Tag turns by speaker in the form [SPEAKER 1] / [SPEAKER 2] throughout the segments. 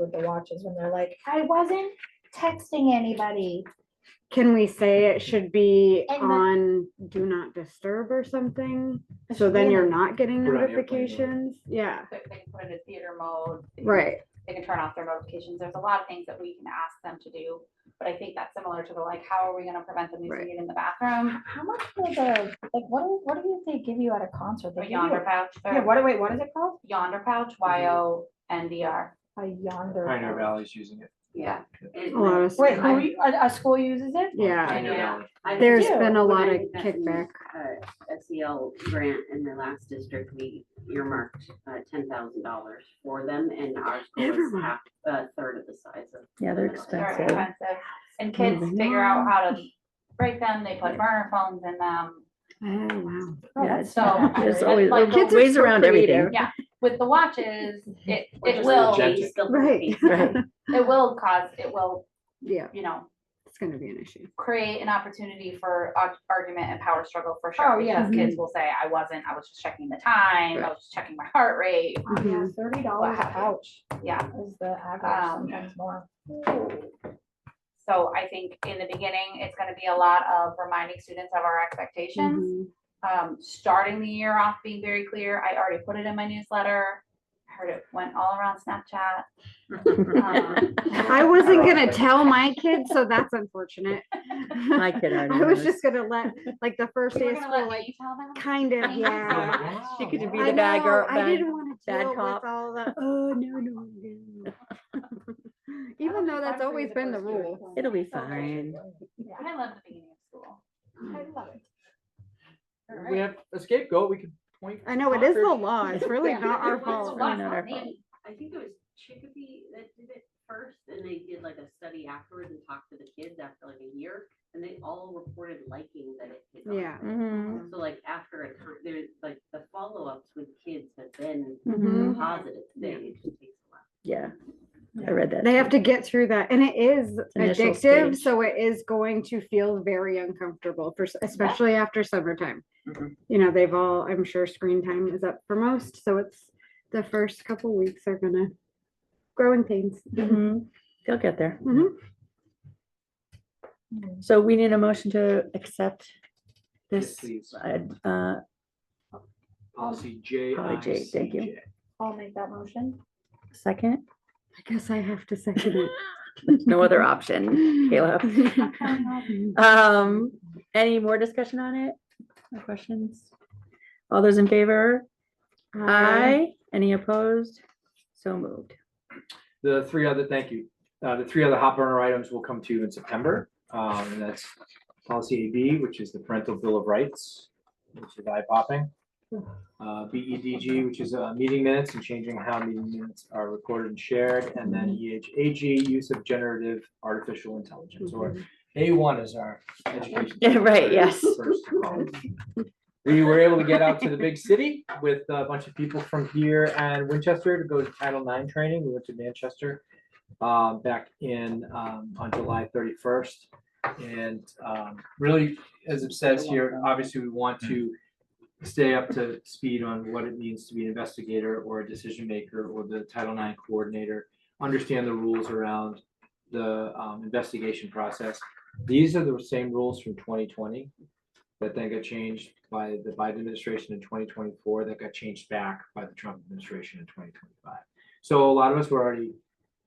[SPEAKER 1] with the watches when they're like, I wasn't texting anybody.
[SPEAKER 2] Can we say it should be
[SPEAKER 1] And the-
[SPEAKER 2] on do not disturb or something? So then you're not getting
[SPEAKER 3] Put it on airplane mode.
[SPEAKER 2] notifications? Yeah,
[SPEAKER 4] put- They can put it in theater mode. they can-
[SPEAKER 2] right.
[SPEAKER 4] They can turn off their notifications. There's a lot of things that we can ask them to do. But I think that's similar to the like, how are we gonna prevent them
[SPEAKER 2] Right.
[SPEAKER 4] using it in the bathroom
[SPEAKER 1] How much will the, like, what do, what do they give you at a concert? They
[SPEAKER 4] or
[SPEAKER 1] give you a-
[SPEAKER 4] yonder pouch? or
[SPEAKER 1] Yeah, what, do- wait, what is it called?
[SPEAKER 4] Yonder pouch, Y O N D R.
[SPEAKER 1] A yonder.
[SPEAKER 3] Pioneer
[SPEAKER 1] pouch.
[SPEAKER 3] Valley's using it.
[SPEAKER 4] Yeah.
[SPEAKER 2] A lot of
[SPEAKER 1] Wait,
[SPEAKER 2] stuff.
[SPEAKER 1] who you- a, a school uses it?
[SPEAKER 2] Yeah,
[SPEAKER 3] Pioneer
[SPEAKER 5] Yeah.
[SPEAKER 3] Valley.
[SPEAKER 5] I think
[SPEAKER 2] there's
[SPEAKER 1] do.
[SPEAKER 2] been a
[SPEAKER 5] when
[SPEAKER 2] lot
[SPEAKER 5] I
[SPEAKER 2] of
[SPEAKER 5] got the,
[SPEAKER 2] kickback.
[SPEAKER 5] uh, SEL grant in the last district, we earmarked uh, ten thousand dollars for them and our school is
[SPEAKER 2] Everyone.
[SPEAKER 5] half, a third of the size of.
[SPEAKER 6] Yeah, they're
[SPEAKER 5] the middle.
[SPEAKER 4] They're
[SPEAKER 6] Expensive.
[SPEAKER 4] expensive. And kids
[SPEAKER 2] Moving
[SPEAKER 4] figure out how to break them. They put burner phones in them.
[SPEAKER 2] Oh, wow.
[SPEAKER 6] Yeah, it's-
[SPEAKER 4] So-
[SPEAKER 6] There's always
[SPEAKER 4] Like,
[SPEAKER 6] there's
[SPEAKER 2] kids are
[SPEAKER 6] ways
[SPEAKER 2] so
[SPEAKER 6] around everything.
[SPEAKER 4] With the watches, it,
[SPEAKER 5] We're
[SPEAKER 4] it
[SPEAKER 5] just
[SPEAKER 4] will,
[SPEAKER 3] legit.
[SPEAKER 5] we still-
[SPEAKER 2] Right.
[SPEAKER 6] Right.
[SPEAKER 4] it will cause, it will,
[SPEAKER 2] Yeah,
[SPEAKER 4] you know,
[SPEAKER 2] it's gonna be an issue.
[SPEAKER 4] create an opportunity for ar- argument and power struggle for sure.
[SPEAKER 1] Oh, yeah.
[SPEAKER 4] Because kids will say, I wasn't, I was just checking the time, I was just checking my heart rate.
[SPEAKER 1] Yeah,
[SPEAKER 2] Mm-hmm.
[SPEAKER 1] thirty dollars a
[SPEAKER 4] Wow.
[SPEAKER 1] pouch
[SPEAKER 4] Yeah.
[SPEAKER 1] is the average,
[SPEAKER 4] Um,
[SPEAKER 1] sometimes more.
[SPEAKER 4] So I think in the beginning, it's gonna be a lot of reminding students of our expectations.
[SPEAKER 2] Mhm.
[SPEAKER 4] Um, starting the year off being very clear. I already put it in my newsletter. I Heard it went all around Snapchat. Um,
[SPEAKER 2] I wasn't gonna tell my kids, so that's unfortunate.
[SPEAKER 6] My kid already
[SPEAKER 2] I was
[SPEAKER 6] knows.
[SPEAKER 2] just gonna let, like, the first day
[SPEAKER 4] We're
[SPEAKER 2] of
[SPEAKER 4] gonna
[SPEAKER 2] school,
[SPEAKER 4] let
[SPEAKER 2] like,
[SPEAKER 4] you tell them?
[SPEAKER 2] kind of, yeah.
[SPEAKER 6] She could be
[SPEAKER 2] I
[SPEAKER 6] the bad
[SPEAKER 2] know,
[SPEAKER 6] girl,
[SPEAKER 2] I
[SPEAKER 6] bad,
[SPEAKER 2] didn't want to
[SPEAKER 6] bad
[SPEAKER 2] deal with
[SPEAKER 6] cop.
[SPEAKER 2] all that. Oh no, no, no. Even though that's always been the rule.
[SPEAKER 6] it'll be
[SPEAKER 4] So great.
[SPEAKER 6] fine.
[SPEAKER 2] Mm-hmm.
[SPEAKER 1] Yeah,
[SPEAKER 4] I love the beginning of school.
[SPEAKER 1] I love it.
[SPEAKER 3] We have a scapegoat, we could point.
[SPEAKER 2] I know it is the
[SPEAKER 3] Concord.
[SPEAKER 2] law. It's really
[SPEAKER 5] Yeah.
[SPEAKER 2] not our
[SPEAKER 5] It's the
[SPEAKER 2] fault.
[SPEAKER 5] law.
[SPEAKER 6] Really not our fault.
[SPEAKER 5] I think it was Chicopee that did it first, and they did like a study afterwards and talked to the kids after like a year, and they all reported liking that it. hit on
[SPEAKER 2] Yeah.
[SPEAKER 5] them.
[SPEAKER 6] Mhm.
[SPEAKER 5] So like after a time, there's like the follow-ups with kids have been
[SPEAKER 2] Mhm.
[SPEAKER 4] Mm-hmm.
[SPEAKER 5] positive, they,
[SPEAKER 2] Yeah.
[SPEAKER 5] it just takes a while.
[SPEAKER 6] Yeah,
[SPEAKER 1] Mm-hmm.
[SPEAKER 6] I read that.
[SPEAKER 2] They have to get through that, and it is
[SPEAKER 6] Initial
[SPEAKER 2] addictive,
[SPEAKER 6] stage.
[SPEAKER 2] so it is going to feel very uncomfortable for, s- especially after summertime.
[SPEAKER 5] Mhm.
[SPEAKER 2] You know, they've all, I'm sure, screen time is up for most, so it's the first couple weeks are gonna grow in pains.
[SPEAKER 6] Mhm. They'll get there.
[SPEAKER 2] Mhm.
[SPEAKER 1] Mm-hmm.
[SPEAKER 6] So we need a motion to accept
[SPEAKER 3] Yes,
[SPEAKER 6] this,
[SPEAKER 3] please.
[SPEAKER 6] uh, uh,
[SPEAKER 3] Policy J
[SPEAKER 6] Probably
[SPEAKER 3] I
[SPEAKER 6] J,
[SPEAKER 3] C
[SPEAKER 6] thank you.
[SPEAKER 3] J.
[SPEAKER 1] I'll make that motion.
[SPEAKER 6] second,
[SPEAKER 2] I guess I have to second it. Uh,
[SPEAKER 6] no other option, Caleb. Um, any more discussion on it? No questions? All those in favor? Aye. Any opposed? So moved.
[SPEAKER 3] The three other, thank you. Uh, the three other hot burner items will come to you in September. Um, and that's policy AB, which is the parental bill of rights, which is eye popping. Uh, BEDG, which is, uh, meeting minutes and changing how meeting minutes are recorded and shared. And then E EHAG, use of generative artificial intelligence, or A one is our education.
[SPEAKER 6] Yeah, right, yes.
[SPEAKER 3] first to call. We were able to get out to the big city with a bunch of people from here and Winchester to go to Title IX training. We went to Manchester uh, back in, um, on July thirty-first. And um, really, as it says here, obviously, we want to stay up to speed on what it means to be an investigator or a decision maker or the Title IX coordinator, understand the rules around the um, investigation process. These are the same rules from twenty twenty that then got changed by the Biden administration in twenty twenty-four, that got changed back by the Trump administration in twenty twenty-five. So a lot of us were already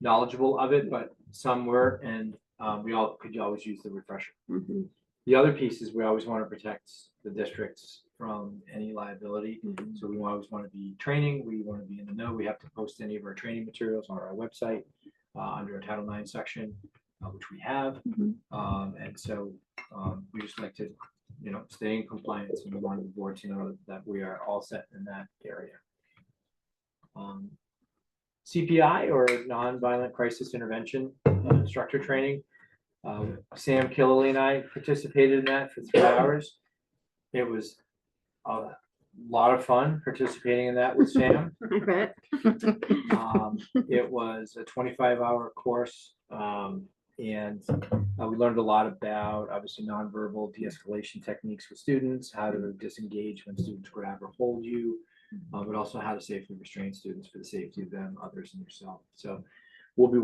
[SPEAKER 3] knowledgeable of it, but some were, and um, we all could always use the refresher.
[SPEAKER 2] Mhm.
[SPEAKER 3] The other piece is we always want to protect the districts from any liability.
[SPEAKER 2] Mhm.
[SPEAKER 3] So we always want to be training, we want to be in the know, we have to post any of our training materials on our website uh, under a Title IX section, uh, which we have.
[SPEAKER 6] Mhm.
[SPEAKER 3] Um, and so, um, we just like to, you know, stay in compliance and we want the board to know that we are all set in that area. Um, CPI or Nonviolent Crisis Intervention uh, Instructor Training. Um, Sam Killily and I participated in that for three hours. It was a lot of fun participating in that with Sam.
[SPEAKER 2] I bet.
[SPEAKER 3] Um, it was a twenty-five hour course, um, and uh, we learned a lot about, obviously, nonverbal de-escalation techniques with students, how to disengage when students grab or hold you, uh, but also how to safely restrain students for the safety of them, others, and yourself. So will be